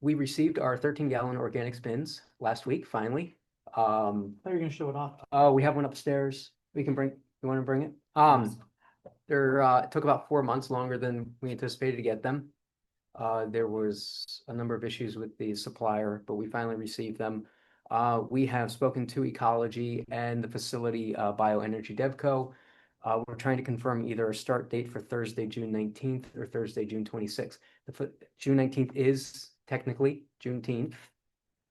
we received our thirteen gallon organic spins last week, finally. Um, They're gonna show it off. oh, we have one upstairs. We can bring, you wanna bring it? Um, There, uh, it took about four months longer than we anticipated to get them. Uh, there was a number of issues with the supplier, but we finally received them. Uh, we have spoken to Ecology and the facility, uh, Bioenergy Devco. Uh, we're trying to confirm either a start date for Thursday, June nineteenth or Thursday, June twenty-sixth. The, fu- June nineteenth is technically Juneteenth.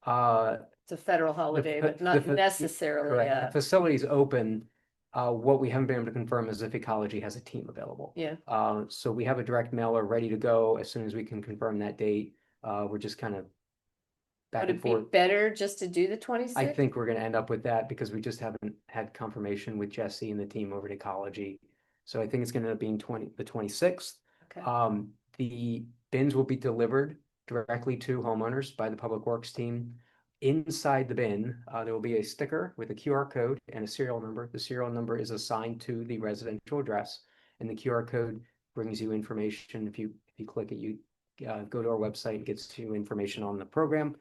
Uh, It's a federal holiday, fa- but the not fa- necessarily Correct. The a, Facility's open. Uh, what we haven't been able to confirm is if Ecology has a team available. yeah, Uh, so we have a direct mailer ready to go as soon as we can confirm that date. Uh, we're just kind of back would and it be forth. better just to do the twenty-sixth? I think we're gonna end up with that because we just haven't had confirmation with Jesse and the team over at Ecology. So I think it's gonna end up being twenty, the twenty-sixth. Um, the bins will be delivered directly to homeowners by the Public Works team. Inside the bin, uh, there will be a sticker with a QR code and a serial number. The serial number is assigned to the residential address. And the QR code brings you information. If you, if you click it, you, uh, go to our website, it gets you information on the program.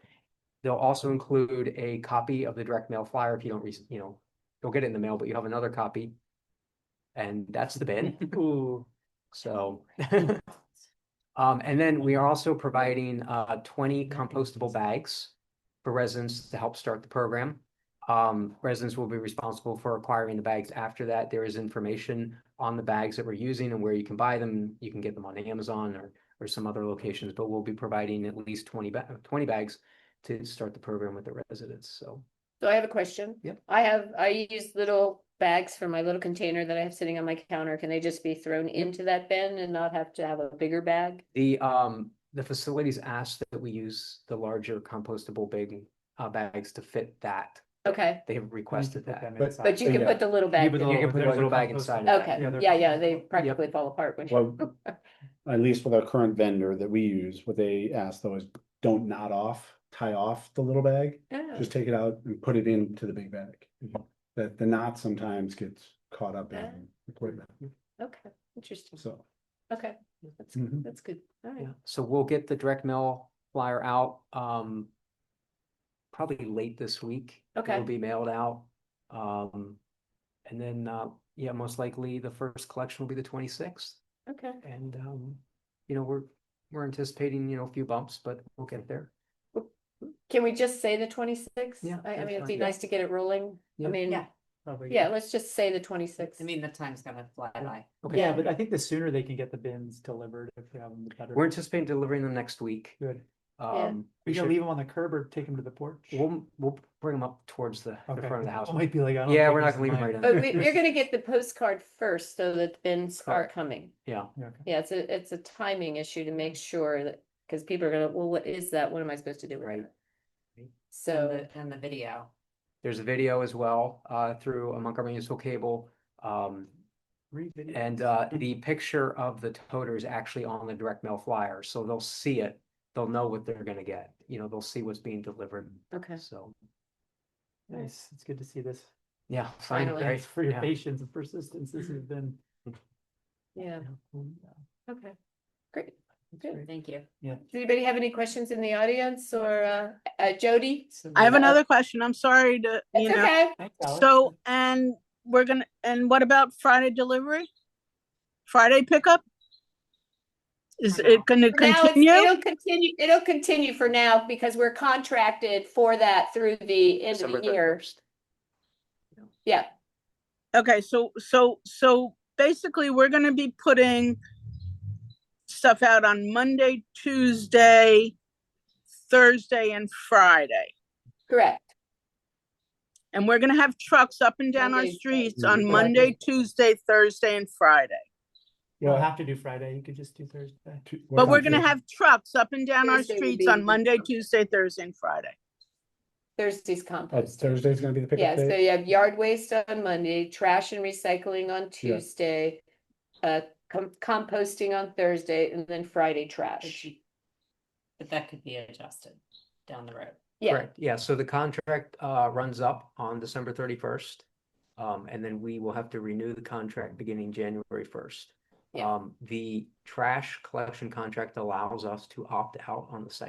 They'll also include a copy of the direct mail flyer if you don't, rec- you know, you'll get it in the mail, but you have another copy. And that's the bin. Ooh. So. Um, and then we are also providing, uh, twenty compostable bags for residents to help start the program. Um, residents will be responsible for acquiring the bags after that. There is information on the bags that we're using and where you can buy them. You can get them on Amazon or, or some other locations, but we'll be providing at least twenty ba- twenty bags to start the program with the residents, so. So I have a question. Yep. I have, I use little bags for my little container that I have sitting on my counter. Can they just be thrown into that bin and not have to have a bigger bag? The, um, the facilities asked that we use the larger compostable big, uh, bags to fit that. Okay, They have requested Mm-hmm. that. but you can yeah. put the little bag, put in. You Oh, can put a there's a little bag compost inside. of it. okay, yeah, they're- yeah, yeah, they practically fall apart when you. Well, at least with our current vendor that we use, what they ask though is don't knot off, tie off the little bag. Oh, Just take it out and put it into the big bag. That the knot sometimes gets caught up Ah. in equipment, Okay, interesting. so. Okay, that's, Mhm. that's good. All right. Yeah, So we'll get the direct mail flyer out, um, probably late this week. Okay. It'll be mailed out. Um, and then, uh, yeah, most likely the first collection will be the twenty-sixth. Okay. And, um, you know, we're, we're anticipating, you know, a few bumps, but we'll get there. Can we just say the twenty-sixth? Yeah, I, I that's mean, it'd be fine. Yeah. nice to get it rolling. I Yeah. mean, Yeah. yeah, let's just say the twenty-sixth. I mean, the time's gonna fly by. Okay. Yeah, but I think the sooner they can get the bins delivered, if we have them, the better. We're anticipating delivering them next week. Good. Um, We we gonna should, leave them on the curb or take them to the porch? we'll, we'll bring them up towards the, the Okay. Oh front of the house. People Might be like, I don't. Yeah, think we're not this is gonna leave them mine. right in. But we, we're gonna get the postcard first so that the bins are Correct. coming. Yeah. Yeah, okay. Yeah, it's a, it's a timing issue to make sure that, because people are gonna, well, what is that? What am I supposed to do with Right. that? And So, the, and the video. There's a video as well, uh, through a Montgomery Municipal Cable. Um, Read video. And uh, the picture of the toter is actually on the direct mail flyer, so they'll see it. They'll know what they're gonna get. You know, they'll see what's being delivered. okay, So, Nice, it's good to see this. yeah. Finally. right, Thanks for your yeah. patience and persistence. This has been. yeah, Yeah, okay, great. it's Good. great. Thank you. Does anybody have any questions in the audience or, uh, uh, Jody? Somebody- I have Yeah. another question. I'm sorry to, you It's know, okay. Thanks, Alex. so, and we're gonna, and what about Friday delivery? Friday pickup? Is For now. it gonna For now, it's- continue? It'll continue, it'll continue for now because we're contracted for that through the end of December the year. 31st. Yeah, Okay, so, so, so basically, we're gonna be putting stuff out on Monday, Tuesday, Thursday, and Friday. correct. And we're gonna have trucks up and down our Monday, streets Thursday. on Monday, Tuesday, Thursday, and Friday. You don't have to do Friday, you could just do Thursday. Two- what But we're time gonna is it? have trucks up and down our Thursday would streets be- on Monday, Tuesday, Thursday, and Friday. Thursday's That's compost. Oh, Thursday's gonna be the Yeah, pickup so day. you have yard waste on Monday, trash and recycling on Tuesday, uh, com- composting on Thursday, and then Friday But trash. she- but that could be adjusted down the road. Yeah, Correct. Yeah, so the contract uh, runs up on December thirty-first. Um, and then we will have to renew the contract beginning January first. Yeah. Um, the trash collection contract allows us to opt out on the second.